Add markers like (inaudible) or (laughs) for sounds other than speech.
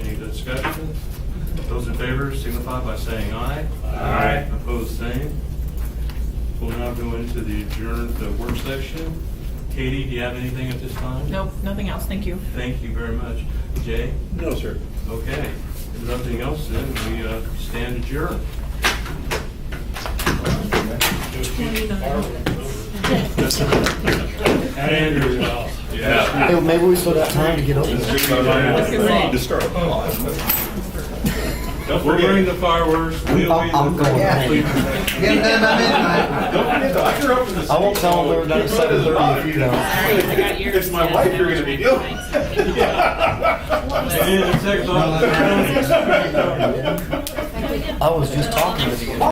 Those in favor signify by saying aye. Aye. Opposed, same. We'll now go into the adjourned, the work section. Katie, do you have anything at this time? Nope, nothing else, thank you. Thank you very much. Jay? No, sir. Okay. If nothing else, then we uh, stand adjourned. Andrew, Yeah. Hey, Maybe we still got time to get over this. say. well. Start. Don't forget the fireworks. We'll be in the- I'm- I'm going home. Get them by midnight. Don't forget the hooker up in the I won't tell them we were done at Get rid of seven the thirty if you bottom. don't. It's my wife you're gonna be dealing. (laughs) Yeah, the second one. (laughs) I was just talking to you.